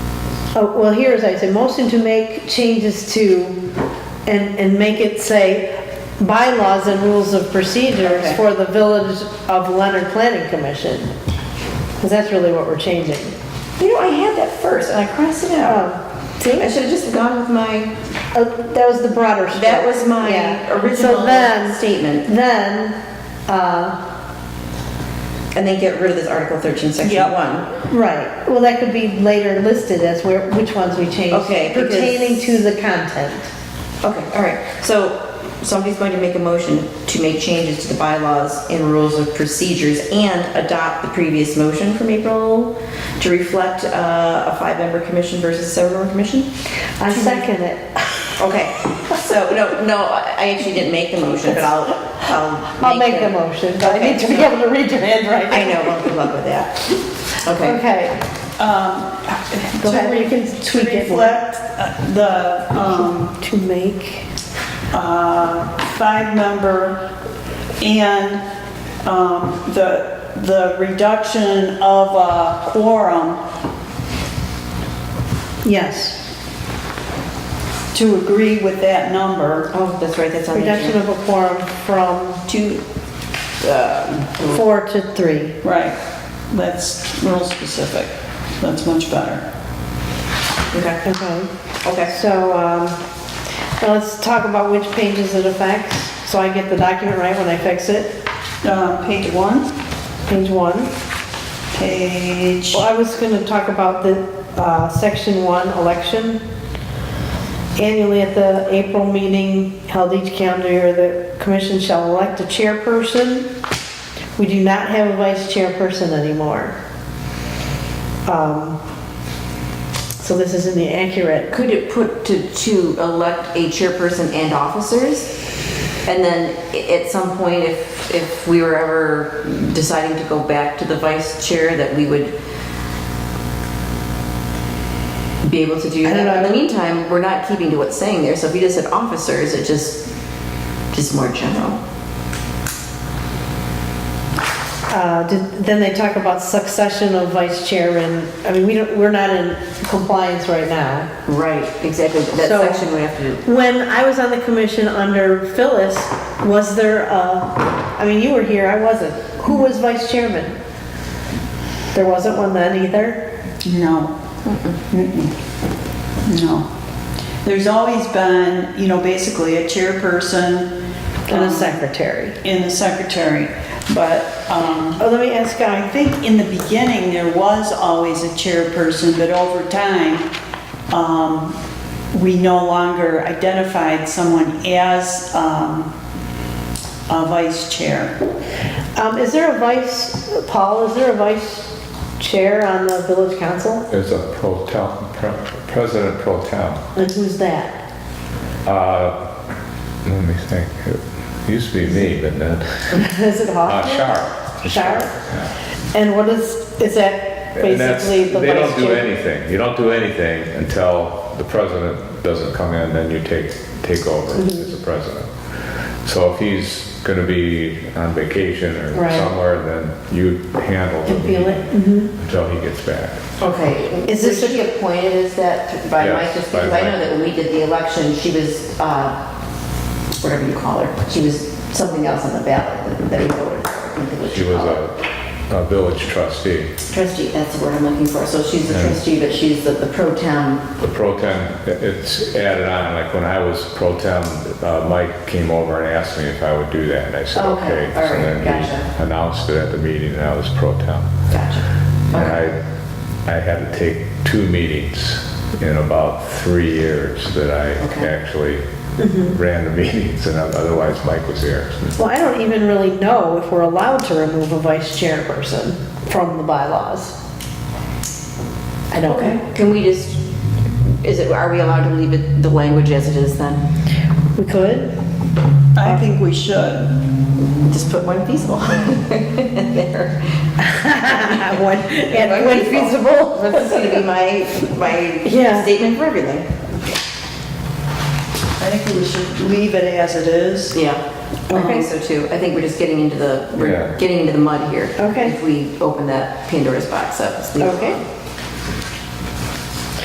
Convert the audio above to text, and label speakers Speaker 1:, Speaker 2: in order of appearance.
Speaker 1: Oh, well, here is, I say, motion to make changes to, and, and make it say, bylaws and rules of procedures
Speaker 2: Okay.
Speaker 1: for the Village of Leonard Planning Commission. Because that's really what we're changing.
Speaker 2: You know, I had that first and I crossed it out.
Speaker 1: Oh, see?
Speaker 2: I should have just gone with my,
Speaker 1: Oh, That was the broader. stroke.
Speaker 2: that was my
Speaker 1: Yeah.
Speaker 2: original
Speaker 1: So then,
Speaker 2: statement.
Speaker 1: then, uh,
Speaker 2: And then get rid of this Article 13, Section
Speaker 3: Yep.
Speaker 2: 1.
Speaker 1: right, well, that could be later listed as where, which ones we changed.
Speaker 2: Okay, because-
Speaker 1: Pertaining to the content.
Speaker 2: Okay, all right. So somebody's going to make a motion to make changes to the bylaws and rules of procedures and adopt the previous motion from April to reflect uh, a five-member commission versus a seven-member commission?
Speaker 1: I second it.
Speaker 2: Okay, so, no, no, I actually didn't make the motion, but I'll, I'll.
Speaker 1: I'll make the motion, but I need to be
Speaker 2: Okay.
Speaker 1: able to read your handwriting.
Speaker 2: I know, well, good luck with that. Okay,
Speaker 1: Okay,
Speaker 3: Um,
Speaker 1: Go
Speaker 3: to
Speaker 1: ahead, you can
Speaker 3: re-
Speaker 1: tweak
Speaker 3: To
Speaker 1: it.
Speaker 3: reflect uh, the, um,
Speaker 1: to make,
Speaker 3: uh, five-member and, um, the, the reduction of a quorum
Speaker 1: yes,
Speaker 3: to agree with that number.
Speaker 2: oh, that's right, that's on the
Speaker 1: reduction
Speaker 2: agenda.
Speaker 1: of a quorum from uh,
Speaker 3: Two,
Speaker 1: four to three.
Speaker 3: right, that's real specific. That's much better.
Speaker 2: Okay,
Speaker 1: Okay,
Speaker 2: okay,
Speaker 1: so, um, now let's talk about which pages it affects, so I get the document right when I fix it.
Speaker 3: Uh, page one,
Speaker 1: Page one.
Speaker 3: page,
Speaker 1: Well, I was gonna talk about the, uh, section one election. Annually at the April meeting held each calendar year, the commission shall elect a chairperson. We do not have a vice chairperson anymore. Um, So this isn't the accurate.
Speaker 2: could it put to, to elect a chairperson and officers? And then i- at some point, if, if we were ever deciding to go back to the vice chair, that we would be able to do
Speaker 1: I
Speaker 2: that.
Speaker 1: don't
Speaker 2: In the
Speaker 1: know.
Speaker 2: meantime, we're not keeping to what's saying there, so if you just said officers, it just, just more general.
Speaker 1: Uh, did- Then they talk about succession of vice chair and, I mean, we don't, we're not in compliance right now.
Speaker 2: Right, exactly, that
Speaker 1: So-
Speaker 2: section we have to do.
Speaker 1: When I was on the commission under Phyllis, was there a, I mean, you were here, I wasn't. Who was vice chairman? There wasn't one then either?
Speaker 3: No. Mm-mm. No. There's always been, you know, basically a chairperson.
Speaker 1: And a
Speaker 3: um,
Speaker 1: secretary.
Speaker 3: And a secretary, but, um,
Speaker 1: Oh, let me ask
Speaker 3: I
Speaker 1: Guy.
Speaker 3: think in the beginning, there was always a chairperson, but over time, um, we no longer identified someone as, um, a vice chair.
Speaker 1: Um, is there a vice, Paul, is there a vice chair on the village council?
Speaker 4: There's a pro tem, pre- president pro tem.
Speaker 1: And who's that?
Speaker 4: Uh, Let me think. It used to be me, but then,
Speaker 1: Is it
Speaker 4: uh,
Speaker 1: Hoffman?
Speaker 4: Sharp.
Speaker 1: Sharp?
Speaker 4: yeah.
Speaker 1: And what is, is that
Speaker 4: And that's-
Speaker 1: basically the vice chair?
Speaker 4: They don't do anything. You don't do anything until the president doesn't come in, then you take, take over
Speaker 1: Mm-hmm.
Speaker 4: as the president. So if he's gonna be on vacation or
Speaker 1: Right.
Speaker 4: somewhere, then you handle the
Speaker 1: And feel it, Mm-hmm.
Speaker 4: meeting until he gets back.
Speaker 2: Okay,
Speaker 1: Is this
Speaker 2: is this
Speaker 1: a-
Speaker 2: she appointed as that by
Speaker 4: Yes,
Speaker 2: Mike? Just
Speaker 4: by
Speaker 2: because I know
Speaker 4: Mike.
Speaker 2: that when we did the election, she was, uh, whatever you call her, she was something else on the ballot that- that he voted. for. I think it was
Speaker 4: She was
Speaker 2: called.
Speaker 4: a, a village trustee.
Speaker 2: Trustee, that's the word I'm looking for. So she's the
Speaker 4: Yeah.
Speaker 2: trustee, but she's the, the pro town.
Speaker 4: The pro tem, it's added on, like when I was pro tem, uh, Mike came over and asked me if I would do that, and I said,
Speaker 2: Okay,
Speaker 4: okay.
Speaker 2: all right,
Speaker 4: And then
Speaker 2: gotcha.
Speaker 4: we announced it at the meeting that I was pro tem.
Speaker 2: Gotcha.
Speaker 4: And
Speaker 2: Okay.
Speaker 4: I, I had to take two meetings in about three years that I
Speaker 2: Okay. Mm-hmm.
Speaker 4: actually ran the meetings, and otherwise Mike was there.
Speaker 1: Well, I don't even really know if we're allowed to remove a vice chairperson from the bylaws. I don't
Speaker 2: Okay,
Speaker 1: know.
Speaker 2: can we just, is it, are we allowed to leave it, the language as it is then?
Speaker 1: We could?
Speaker 3: I think we should.
Speaker 2: Just put one feasible in there.
Speaker 1: When, and when feasible.
Speaker 2: That's gonna be my, my
Speaker 1: Yeah.
Speaker 2: statement for everything.
Speaker 3: I think we should leave it as it is.
Speaker 2: Yeah, I think so too. I think we're just getting into the, we're
Speaker 4: Yeah.
Speaker 2: getting into the mud here.
Speaker 1: Okay.
Speaker 2: If we open that Pandora's box up. let's leave it
Speaker 1: Okay.
Speaker 2: alone.